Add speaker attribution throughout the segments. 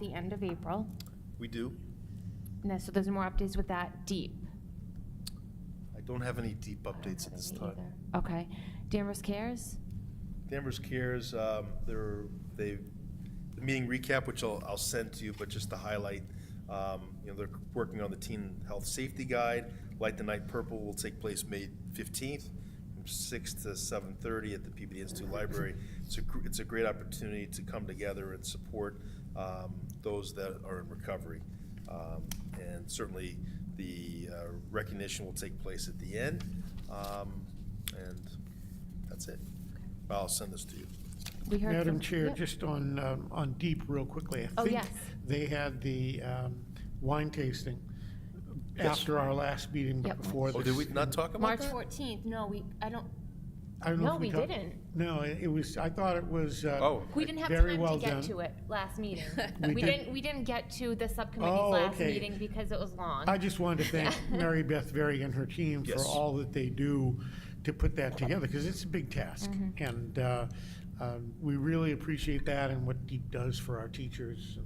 Speaker 1: the end of April.
Speaker 2: We do.
Speaker 1: And then- so there's more updates with that deep.
Speaker 2: I don't have any deep updates at this time.
Speaker 1: Okay. Danvers Cares?
Speaker 2: Danvers Cares, um, they're, they, the meeting recap, which I'll, I'll send to you, but just to highlight, um, you know, they're working on the teen health safety guide. Light the Night Purple will take place May fifteenth, from six to seven thirty at the PBD Institute Library. It's a, gr- it's a great opportunity to come together and support, um, those that are in recovery. Um, And certainly, the uh, recognition will take place at the end, um, and that's it. I'll send this to you.
Speaker 1: We heard
Speaker 3: Madam
Speaker 1: from-
Speaker 3: Chair,
Speaker 1: Yep.
Speaker 3: just on, um, on Deep real quickly. I
Speaker 1: Oh,
Speaker 3: think
Speaker 1: yes.
Speaker 3: They had the um, wine tasting
Speaker 2: Yes.
Speaker 3: after our last meeting, but
Speaker 1: Yep.
Speaker 3: before
Speaker 2: Oh, did
Speaker 3: this.
Speaker 2: we not talk about
Speaker 1: March
Speaker 2: that?
Speaker 1: 14th, no, we, I don't,
Speaker 3: I don't know
Speaker 1: No,
Speaker 3: if
Speaker 1: we
Speaker 3: talked-
Speaker 1: didn't.
Speaker 3: No, it it was, I thought it was. uh,
Speaker 2: Oh.
Speaker 1: we didn't have time
Speaker 3: Very
Speaker 1: to
Speaker 3: well
Speaker 1: get
Speaker 3: done.
Speaker 1: to it last meeting.
Speaker 3: We
Speaker 1: We
Speaker 3: did-
Speaker 1: didn't, we didn't get to the subcommittee's
Speaker 3: Oh,
Speaker 1: last
Speaker 3: okay.
Speaker 1: meeting because it was long.
Speaker 3: I just wanted to thank
Speaker 1: Yeah.
Speaker 3: Mary Beth Berry and her team for
Speaker 2: Yes.
Speaker 3: all that they do to put that together, because it's a big task.
Speaker 1: Mm-hmm.
Speaker 3: And uh, um, we really appreciate that and what Deep does for our teachers.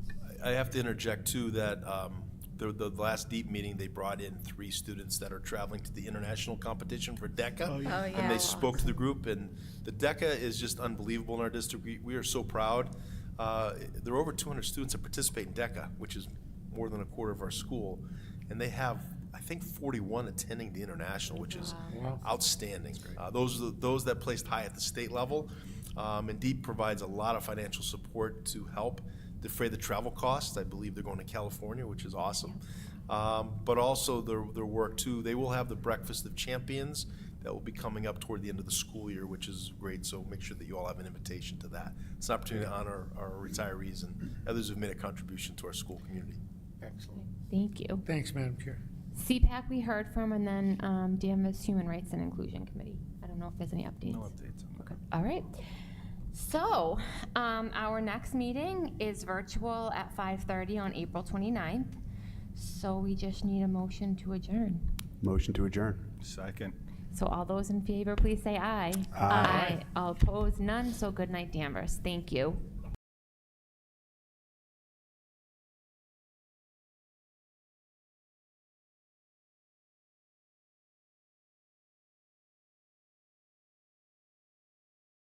Speaker 2: I have to interject too, that um, the, the last deep meeting, they brought in three students that are traveling to the international competition for DECA.
Speaker 3: Oh, yeah.
Speaker 4: Oh, yeah.
Speaker 2: And they spoke to the group, and the DECA is just unbelievable in our district. We- We are so proud. Uh, There are over 200 students that participate in DECA, which is more than a quarter of our school. And they have, I think, 41 attending the international, which is
Speaker 3: Wow.
Speaker 2: outstanding. Uh, Those, are the- those that placed high at the state level. Um, And DEEP provides a lot of financial support to help defray the travel costs. I believe they're going to California, which is awesome. Um, But also their, their work too, they will have the Breakfast of Champions that will be coming up toward the end of the school year, which is great, so make sure that you all have an invitation to that. It's an opportunity to honor our retirees and others who've made a contribution to our school community.
Speaker 3: Excellent.
Speaker 1: Thank you.
Speaker 3: Thanks, Madam Chair.
Speaker 1: CPAC we heard from, and then um, Danvers Human Rights and Inclusion Committee. I don't know if there's any updates.
Speaker 2: updates on
Speaker 1: Okay, all right. So, um, our next meeting is virtual at 5:30 on April 29th. So we just need a motion to adjourn.
Speaker 5: Motion to adjourn.
Speaker 6: Second.
Speaker 1: So all those in favor, please say aye.
Speaker 5: Aye.
Speaker 1: All opposed, none, so good night, Danvers. Thank you.